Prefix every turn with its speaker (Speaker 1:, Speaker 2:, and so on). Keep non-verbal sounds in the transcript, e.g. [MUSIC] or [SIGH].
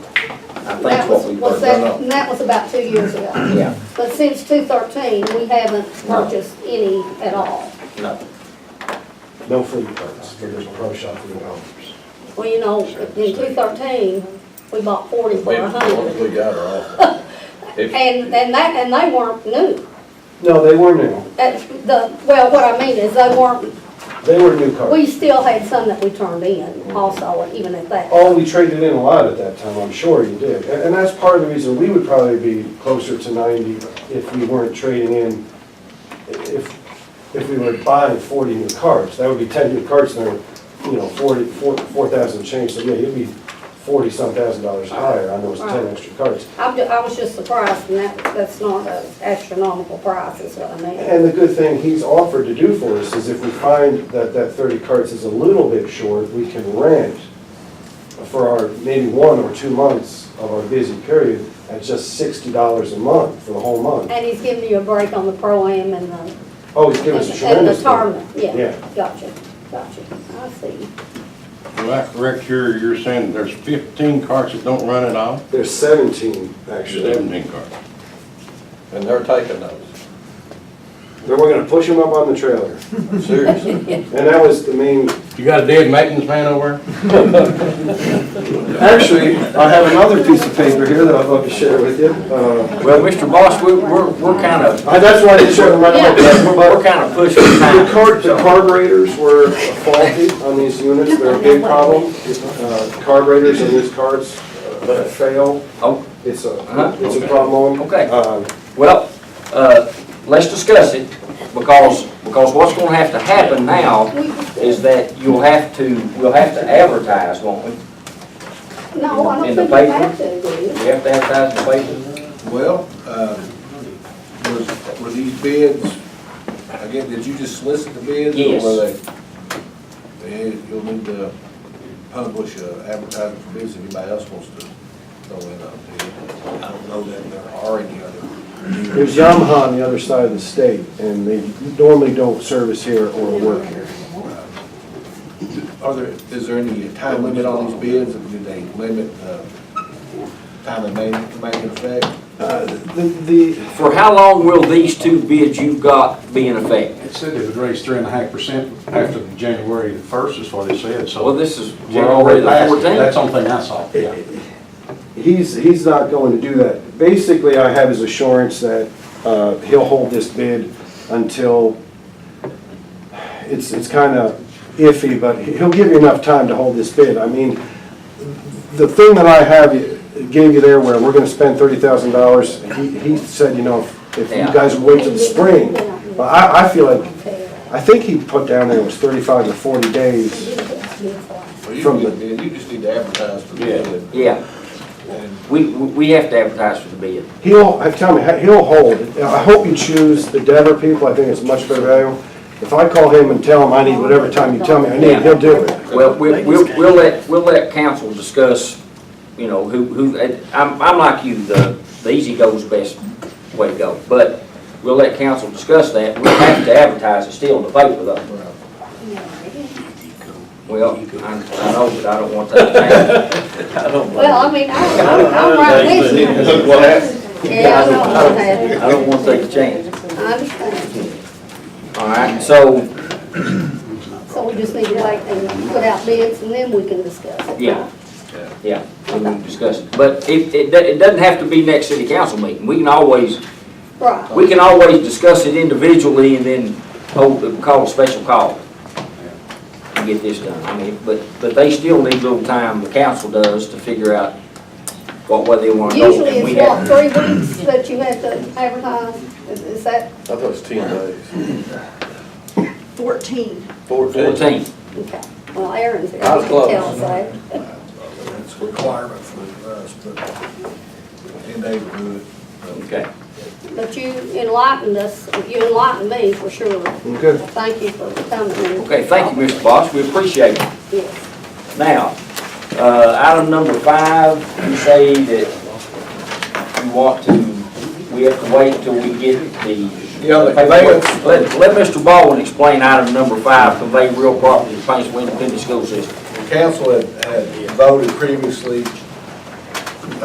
Speaker 1: I think
Speaker 2: That
Speaker 1: what
Speaker 2: was,
Speaker 1: we
Speaker 2: was
Speaker 1: worked
Speaker 2: that,
Speaker 1: on.
Speaker 2: and that was about two years ago.
Speaker 1: Yeah,
Speaker 2: But since two thirteen, we haven't purchased any at all.
Speaker 1: no.
Speaker 3: No food carts, but there's a pro shop for the homes.
Speaker 2: Well, you know, in two thirteen, we bought forty for
Speaker 4: Wait,
Speaker 2: a
Speaker 4: as long as
Speaker 2: hundred.
Speaker 4: we got her off. If-
Speaker 2: And, and that, and they weren't new.
Speaker 3: No, they were new.
Speaker 2: That's the, well, what I mean is they weren't,
Speaker 3: They were new carts.
Speaker 2: we still had some that we turned in also, even at that.
Speaker 3: Oh, we traded in a lot at that time, I'm sure you did. And and that's part of the reason we would probably be closer to 90 if we weren't trading in, if, if we were buying 40 new carts. That would be 10 new carts and they're, you know, 40, 4 4,000 change. So yeah, you'd be 40-some thousand dollars higher on those 10 extra carts.
Speaker 2: I'm, ju- I was just surprised, and that, that's not an astronomical price, is what I mean.
Speaker 3: And the good thing he's offered to do for us is if we find that that 30 carts is a little bit short, we can rent for our, maybe one or two months of our busy period at just $60 a month for the whole month.
Speaker 2: And he's giving you a break on the pro-am and the.
Speaker 3: Oh, he's given us a
Speaker 2: And the
Speaker 3: tremendous.
Speaker 2: tournament, yeah,
Speaker 3: Yeah.
Speaker 2: gotcha, gotcha, I see.
Speaker 5: Well, I correct here, you're saying there's fifteen carts that don't run at all?
Speaker 3: There's 17, actually.
Speaker 5: Seventeen carts.
Speaker 4: And they're taking those,
Speaker 3: Then we're gonna push them up on the trailer.
Speaker 4: seriously.
Speaker 3: And that was the main,
Speaker 5: You got a dead maintenance man over there?
Speaker 3: actually, I have another piece of paper here that I'd love to share with you. Uh,
Speaker 6: Well, Mr. Boss, we, we're, we're kind of,
Speaker 3: I- That's why I didn't show them right away. but- but-
Speaker 6: we're kind of pushing
Speaker 3: The
Speaker 6: time.
Speaker 3: car, the carburetors were faulty on these units, they're a big problem. Uh, Carburetors in these carts uh, fail,
Speaker 6: Oh,
Speaker 3: it's
Speaker 6: Uh-huh.
Speaker 3: a, it's a problem.
Speaker 6: Okay.
Speaker 3: Um,
Speaker 6: Well, uh, let's discuss it, because, because what's gonna have to happen now is that you'll have to, we'll have to advertise, won't we?
Speaker 2: No, I don't
Speaker 6: In
Speaker 2: think
Speaker 6: the
Speaker 2: you
Speaker 6: paper?
Speaker 2: have to, do you?
Speaker 6: We have to advertise in the paper.
Speaker 7: [LAUGHS] Well, um, was, were these bids, again, did you just solicit the bids?
Speaker 6: Yes.
Speaker 7: Or were they, eh, you'll need to publish an advertisement for bids if anybody else wants to throw in a bid. I don't know that there are any other.
Speaker 3: There's Yamaha on the other side of the state, and they normally don't service here or work here.
Speaker 7: Are there, is there any time limit on these bids? Do they limit the time they may, may in effect?
Speaker 3: Uh, The, the,
Speaker 6: For how long will these two bids you've got be in effect?
Speaker 8: It said it would raise three and a half percent after January the first, is what it said, so.
Speaker 6: Well, this is, we're already
Speaker 8: January
Speaker 6: the
Speaker 8: last, that's
Speaker 6: fourteenth.
Speaker 8: the only thing I saw, yeah.
Speaker 3: he's, he's not going to do that. Basically, I have his assurance that uh, he'll hold this bid until, it's, it's kind of iffy, but he'll give you enough time to hold this bid. I mean, the thing that I have, gave you there where we're going to spend thirty thousand dollars, he, he said, you know, if- if you
Speaker 6: Yeah.
Speaker 3: guys wait till the spring, but I, I feel like, I think he put down there was thirty-five to forty days.
Speaker 7: Well, you
Speaker 3: From
Speaker 7: can get a bid, you just need to advertise for the
Speaker 8: Yeah.
Speaker 7: bid.
Speaker 6: Yeah,
Speaker 7: And
Speaker 6: we, we we have to advertise for the bid.
Speaker 3: He'll, I- tell me, he'll hold. I hope you choose the Denver people, I think it's much better value. If I call him and tell him I need whatever time you tell me I need, he'll do it.
Speaker 6: Well, we'll, we'll we'll let, we'll let council discuss, you know, who, who, I'm, I'm like you, the, the easy goes best way to go. But we'll let council discuss that. We'll have to advertise it still in the paper though. Well, I, I know, but I don't want that to happen.
Speaker 2: Well, I mean, I, I'm I'm right with you. Yeah, I know, I
Speaker 6: I
Speaker 2: had,
Speaker 6: don't want that to change.
Speaker 2: I understand.
Speaker 6: All right, so,
Speaker 2: So we just need to wait and put out bids and then we can discuss it.
Speaker 6: Yeah. yeah, we can discuss it. But it, it, do- it doesn't have to be next city council meeting. We can always,
Speaker 2: Right.
Speaker 6: we can always discuss it individually and then hold, call a special call to get this done. I mean, but, but they still need a little time, the council does, to figure out what, where they want to go.
Speaker 2: Usually
Speaker 6: and we
Speaker 2: it's
Speaker 6: have-
Speaker 2: what, three weeks that you have to advertise, is is that,
Speaker 4: I thought it was ten days.
Speaker 9: Fourteen.
Speaker 4: Fourteen.
Speaker 6: Fourteen.
Speaker 2: okay, well, Aaron's here,
Speaker 4: I was
Speaker 2: he can tell
Speaker 4: close.
Speaker 2: us that.
Speaker 7: That's a requirement for us, but and they would do it.
Speaker 6: Okay.
Speaker 2: But you enlightened us, you enlightened me for sure.
Speaker 3: Okay.
Speaker 2: Thank you for coming. and-
Speaker 6: Okay, thank you, Mr. Boss, we appreciate it.
Speaker 2: Yes.
Speaker 6: Now, uh, item number five, you say that you want to, we have to wait till we get the.
Speaker 7: Yeah, the conveyance.
Speaker 6: Let, let Mr. Baldwin explain item numur five, convey real property to Paintsville Independent School System.
Speaker 7: The council had, had voted previously